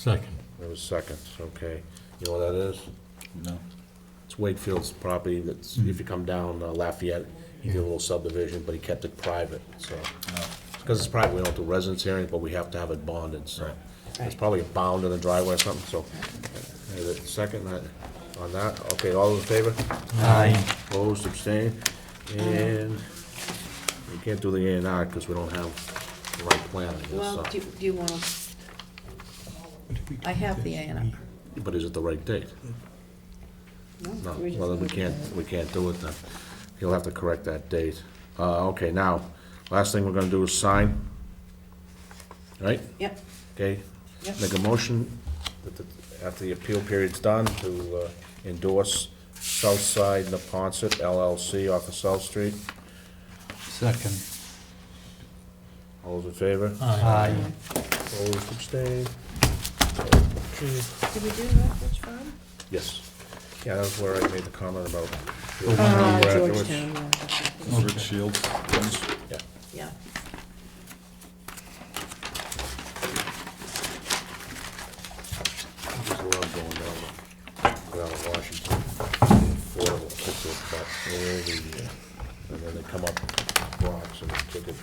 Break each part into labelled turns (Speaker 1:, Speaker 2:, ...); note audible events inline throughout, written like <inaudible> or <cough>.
Speaker 1: Second.
Speaker 2: There was seconds, okay. You know what that is?
Speaker 3: No.
Speaker 2: It's Wakefield's property that's, if you come down uh, Lafayette, he did a little subdivision, but he kept it private, so. Oh. Because it's private, we don't do residence hearing, but we have to have it bonded, so. It's probably a bound in the driveway or something, so. Is it second uh, on that? Okay, all in favor?
Speaker 1: Aye.
Speaker 2: Opposed, abstained? And we can't do the A and R because we don't have the right plan, I guess,
Speaker 4: Well,
Speaker 2: so.
Speaker 4: do, do you want to, I have the A and
Speaker 2: But is it the right date?
Speaker 4: R.
Speaker 2: No,
Speaker 4: we're just
Speaker 2: well, then we
Speaker 4: voting
Speaker 2: can't,
Speaker 4: on it.
Speaker 2: we can't do it then. He'll have to correct that date. Uh, okay, now, last thing we're gonna do is sign. Right?
Speaker 4: Yep,
Speaker 2: Okay?
Speaker 4: Yep.
Speaker 2: Make a motion that, the- after the appeal period's done, to uh, endorse Southside Napontet LLC off of South Street.
Speaker 3: Second.
Speaker 2: All those in favor?
Speaker 1: Aye.
Speaker 2: Opposed, abstained?
Speaker 4: did we do Rockbridge Farm?
Speaker 2: Yes. Yeah, that's where I made the comment about. Oh,
Speaker 4: Uh,
Speaker 2: Afterwards.
Speaker 4: Georgetown, yeah, that's
Speaker 2: Oh.
Speaker 4: right.
Speaker 3: Richard Shields.
Speaker 2: Yeah.
Speaker 4: yeah.
Speaker 2: I just love going down, the- down to Washington. Affordable, it's just about all the, uh, and then they come up blocks and take it.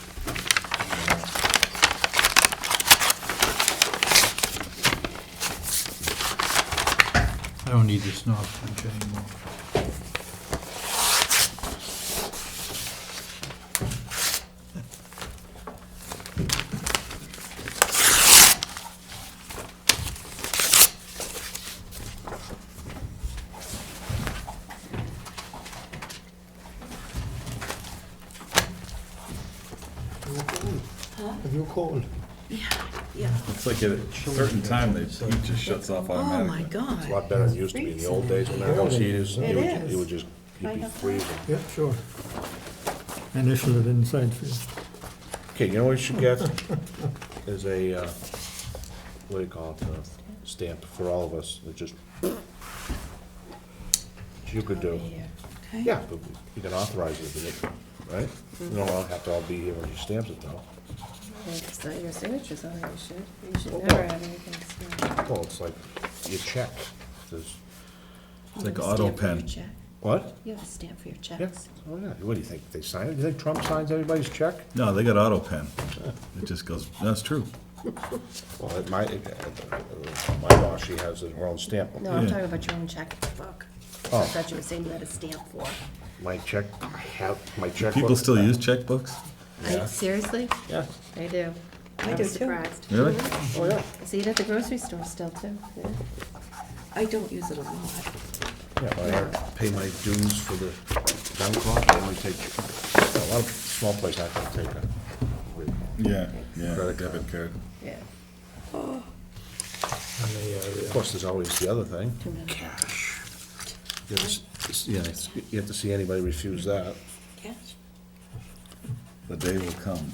Speaker 3: I don't need this snob punch anymore.
Speaker 5: Have you called?
Speaker 4: Yeah,
Speaker 3: It's like at a certain time, they, he just shuts off
Speaker 4: oh my
Speaker 3: automatically.
Speaker 2: It's a lot
Speaker 4: God,
Speaker 2: better than it used to be in the old days when there were no heaters. and
Speaker 4: It
Speaker 2: you would ju-
Speaker 4: is.
Speaker 2: You would just, you'd
Speaker 4: Right
Speaker 2: be
Speaker 4: up there.
Speaker 2: freezing.
Speaker 5: Yeah, sure. Initial it inside for you.
Speaker 2: Okay, you know what you should get? Is a, uh, what do you call it, a stamp for all of us, that just, you could
Speaker 6: Oh,
Speaker 2: do.
Speaker 4: okay.
Speaker 2: Yeah, but you can authorize it, but it- right? You don't all have to all be here when you stamp it though.
Speaker 6: It's not your signatures on it, you should, you
Speaker 2: Oh.
Speaker 6: should never have anything signed.
Speaker 2: Well, it's like your check, there's.
Speaker 3: It's like auto pen.
Speaker 2: What?
Speaker 6: You have to stamp for your
Speaker 2: Yeah,
Speaker 6: checks.
Speaker 2: oh yeah, what do you think, they sign it, you think Trump signs everybody's check?
Speaker 3: No, they got auto pen. It just goes, that's true.
Speaker 2: Well, at my, at uh, my boss, she has her own stamp,
Speaker 6: No, I'm
Speaker 3: Yeah.
Speaker 6: talking about your own checkbook.
Speaker 2: Oh.
Speaker 6: I thought you were saying you had a stamp for.
Speaker 2: my check, have, my check.
Speaker 3: People still use checkbooks?
Speaker 2: Yeah.
Speaker 6: I- Seriously?
Speaker 2: Yeah,
Speaker 6: They do.
Speaker 4: I
Speaker 6: I'm
Speaker 4: do too.
Speaker 6: surprised.
Speaker 3: Really?
Speaker 2: oh yeah,
Speaker 6: I See it at the grocery store still too, yeah.
Speaker 4: I don't use it a lot.
Speaker 2: yeah, but I have- pay my dues for the town clock, I only take, a lot of small places I can take a.
Speaker 3: Yeah, yeah.
Speaker 2: Credit
Speaker 3: Debit card.
Speaker 6: yeah.
Speaker 2: Of course, there's always uh, the other thing,
Speaker 6: Two minutes.
Speaker 2: cash. You have to s- yeah, it's- you have to see anybody refuse that.
Speaker 4: Cash?
Speaker 3: The day will come.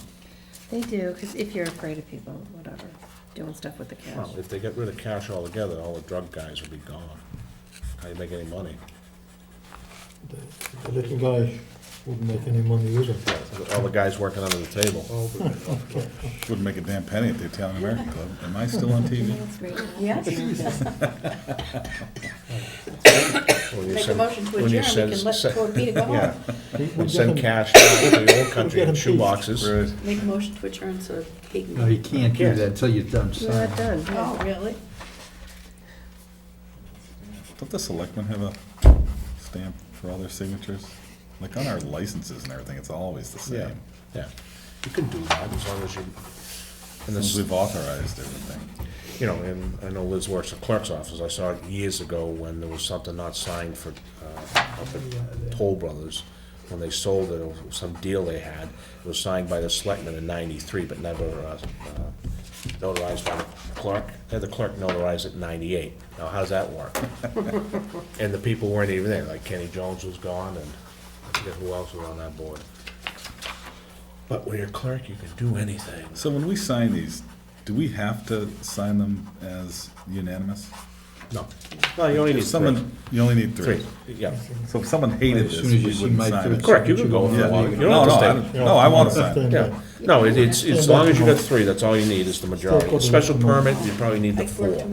Speaker 6: They do, because if you're afraid of people, whatever, doing stuff with the cash.
Speaker 2: Well, if they get rid of cash altogether, all the drug guys will be gone. How do you make any money?
Speaker 5: The little guy wouldn't make any money either.
Speaker 2: All the guys working under the table.
Speaker 5: Oh,
Speaker 3: Wouldn't make a damn penny at the Italian American Club. Am I still on TV?
Speaker 6: That's great.
Speaker 4: Yes.
Speaker 2: When you
Speaker 4: Make a
Speaker 2: send-
Speaker 4: motion to
Speaker 2: when you
Speaker 4: adjourn, we
Speaker 2: send-
Speaker 4: can let
Speaker 2: send-
Speaker 4: Fort Peter
Speaker 2: <laughs>
Speaker 4: go
Speaker 2: Yeah,
Speaker 4: home.
Speaker 5: We-
Speaker 2: we
Speaker 5: we'd get
Speaker 2: send
Speaker 5: him-
Speaker 2: cash down to the old country
Speaker 5: We'll
Speaker 2: in
Speaker 5: get
Speaker 2: shoe
Speaker 5: him
Speaker 2: boxes.
Speaker 3: Right.
Speaker 4: Make a motion to adjourn so he can
Speaker 7: No, you
Speaker 4: go.
Speaker 7: can't do that until you're done
Speaker 6: You're not
Speaker 7: signing.
Speaker 6: done, yeah.
Speaker 4: Oh, really?
Speaker 3: Don't the selectmen have a stamp for all their signatures? Like on our licenses and everything, it's always the
Speaker 2: Yeah,
Speaker 3: same.
Speaker 2: yeah. You can do that as long as you, and
Speaker 3: Since
Speaker 2: this,
Speaker 3: we've authorized everything.
Speaker 2: you know, and I know Liz works at clerk's office. I saw it years ago when there was something not signed for, uh, up at Toll Brothers. When they sold it, it was some deal they had. It was signed by the selectmen in ninety-three, but never, uh, uh, notarized by the clerk. Had the clerk notarized it in ninety-eight. Now, how's that work? And the people weren't even there, like Kenny Jones was gone, and I forget who else was on that board. But when you're a clerk, you can do anything.
Speaker 3: So when we sign these, do we have to sign them as unanimous?
Speaker 2: No, no, you only
Speaker 3: If
Speaker 2: need three.
Speaker 3: someone, you only need three.
Speaker 2: Three, yeah.
Speaker 3: So if someone hated
Speaker 7: As
Speaker 3: this,
Speaker 7: soon as you
Speaker 3: we
Speaker 7: see
Speaker 3: wouldn't
Speaker 7: my
Speaker 3: sign
Speaker 7: third
Speaker 3: it.
Speaker 2: Correct, you can go
Speaker 3: Yeah.
Speaker 2: with one. You don't
Speaker 3: No,
Speaker 2: have
Speaker 3: no,
Speaker 2: to
Speaker 3: I,
Speaker 2: stay.
Speaker 3: don't- no, I want to
Speaker 5: That's
Speaker 3: sign it.
Speaker 5: the-
Speaker 2: Yeah, no, it- it's, as long as you got three, that's all you need, is the majority. A Special permit, you probably need the
Speaker 4: I worked
Speaker 2: four.